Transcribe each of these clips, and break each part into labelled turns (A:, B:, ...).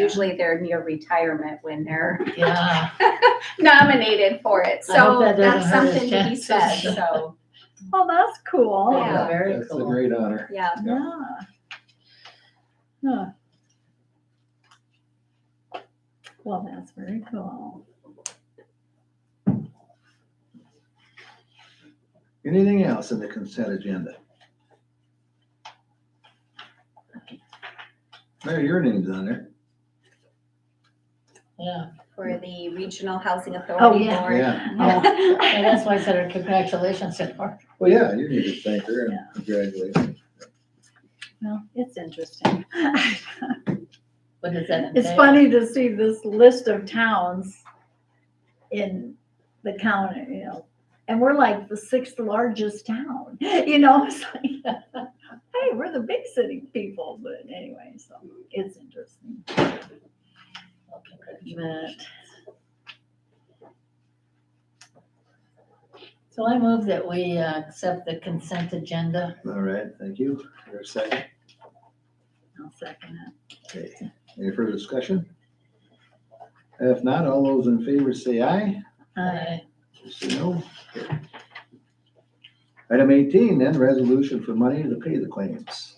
A: Usually they're near retirement when they're
B: Yeah,
A: nominated for it.
B: I hope
A: So
B: that
A: that's
B: doesn't hurt his
A: something to be said,
B: chances.
A: so,
C: Oh, that's cool.
A: Yeah.
B: very
D: That's a
B: cool.
D: great honor.
A: yeah.
C: Yeah. Huh. Well, that's very cool.
D: Anything else in the consent agenda? Mayor, your name's on there.
B: Yeah,
A: For the Regional Housing
B: Oh,
A: Authority
B: yeah.
A: Board.
D: Yeah.
B: and that's why I said our congratulations to her.
D: Well, Oh, yeah, you need to thank her and
C: Yeah.
D: congratulate her.
C: Well, it's interesting.
B: What does that
C: It's
B: entail?
C: funny to see this list of towns in the county, you know, and we're like the sixth largest town, you know, it's like, hey, we're the big city people, but anyway, so it's interesting.
B: Well, congratulations.
C: But
B: So I move that we uh, accept the consent agenda.
D: All right, thank you. Your second.
C: I'll second it.
D: Okay. Any further discussion? If not, all those in favor say aye.
C: Uh,
D: Those Say no. Item eighteen, then, resolution for money to pay the claims.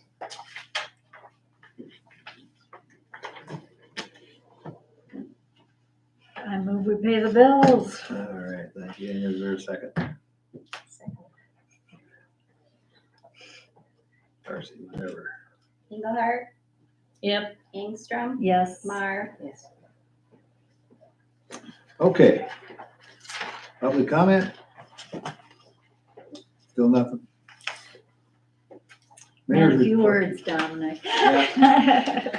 C: I move we pay the bills.
D: All right, thank you. And is there a second? Darcy, whatever.
A: Engelhardt,
B: Yep.
A: Ingstrom,
C: Yes.
A: Mar.
B: Yes.
D: Okay. Public comment? Still nothing?
C: And
D: Mayor's
C: a few
D: report.
C: words, Dominic.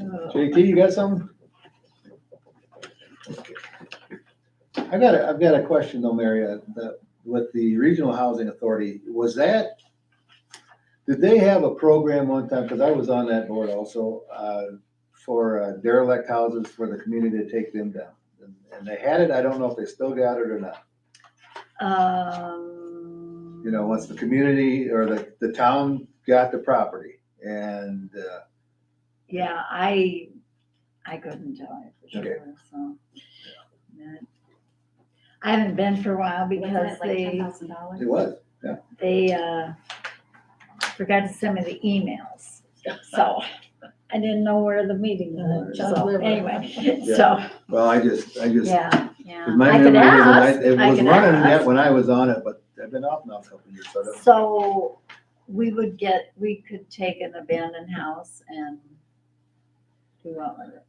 C: Oh.
D: JT, you got something? I got a, I've got a question though, Mary, uh, the- with the Regional Housing Authority, was that, did they have a program one time, because I was on that board also, uh, for uh, derelict houses for the community to take them down? And- And they had it, I don't know if they still got it or not,
C: Um,
D: you know, once the community or the, the town got the property and, uh,
C: Yeah, I, I couldn't tell you for
D: Okay.
C: sure, so. That- I haven't been for a while
A: Wasn't
C: because
A: it like
C: they,
A: $10,000?
D: it was,
C: they, uh, forgot to send me the emails, so I didn't know where the meeting was,
B: Uh,
C: so
B: John
C: anyway,
D: Yeah.
C: so,
D: well, I just, I just
C: yeah, yeah.
D: Cause my
C: I could
D: memory is, and I,
C: ask,
D: it
C: I
D: was
C: could
D: running
C: ask.
D: yet when I was on it, but I've been off now a couple of years, so I don't.
C: So we would get, we could take an abandoned house and do what with it.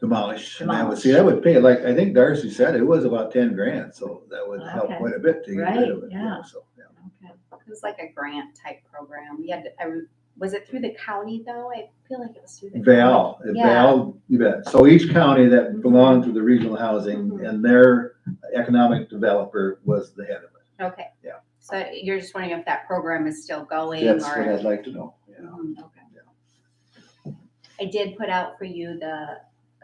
D: Demolish, and that would, see, that would pay, like, I think Darcy said, it was about ten grand, so that would help
C: Okay.
D: quite a bit to get rid of
C: Right,
D: it,
C: yeah.
D: yeah, so, yeah.
C: Okay.
A: It was like a grant type program. We had, to- I, re- was it through the county though? I feel like it was through the. county.
D: Val,
A: Yeah.
D: Val, you bet, so each county
C: Mm-hmm.
D: that belonged to the regional housing
A: Mhm.
D: and their economic developer was the head of it.
A: Okay.
D: Yeah.
A: So you're just wondering if that program is still going
D: That's what I'd
A: or?
D: like to know, yeah.
B: Um,
A: Mhm.
C: Okay.
A: I did put out for you the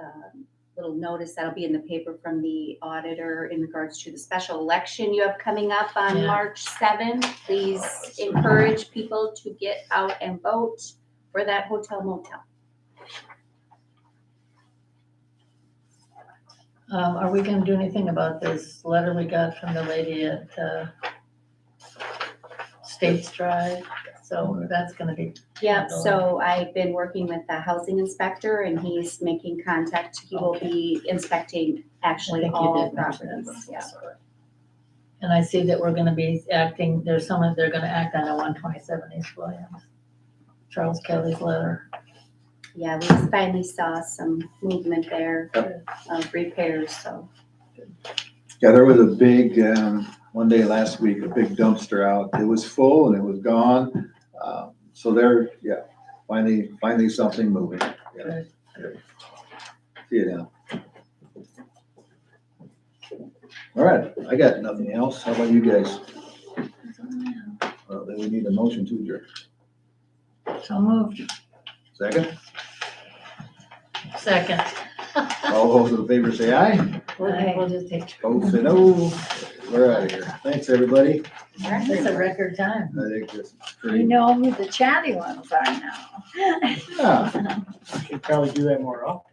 A: um, little notice that'll be in the paper from the auditor in regards to the special election you have coming up on
B: Yeah.
A: March seventh. Please encourage people to get out and vote for that hotel motel.
B: Um, Are we going to do anything about this letter we got from the lady at uh, States Drive? So that's going to be,
A: Yep, so I've been working with the housing inspector and he's making contact. He will be inspecting
B: I
A: actually
B: think you
A: all
B: did mention
A: properties, yeah.
B: that. And I see that we're going to be acting, there's someone, they're going to act on a 127 East Williams, Charles Kelly's letter.
A: Yeah, we finally saw some movement there of repairs, so.
D: Yeah, there was a big, um, one day last week, a big dumpster out. It was full and it was gone. Um, So there, yeah, finally, finally something moving. Yeah.
B: Good.
D: Yeah. See you now. All right, I got nothing else. How about you guys? Well, then we need a motion to adjourn.
B: So moved.
D: Second,
B: Second.
D: all those in favor say aye.
B: We'll we'll just take.
D: Opposed say no. We're out of here. Thanks, everybody.
B: It's a record time.
D: I think that's
C: You
D: pretty,
C: know who the chatty ones are now.
D: yeah.
E: Should probably do that more often.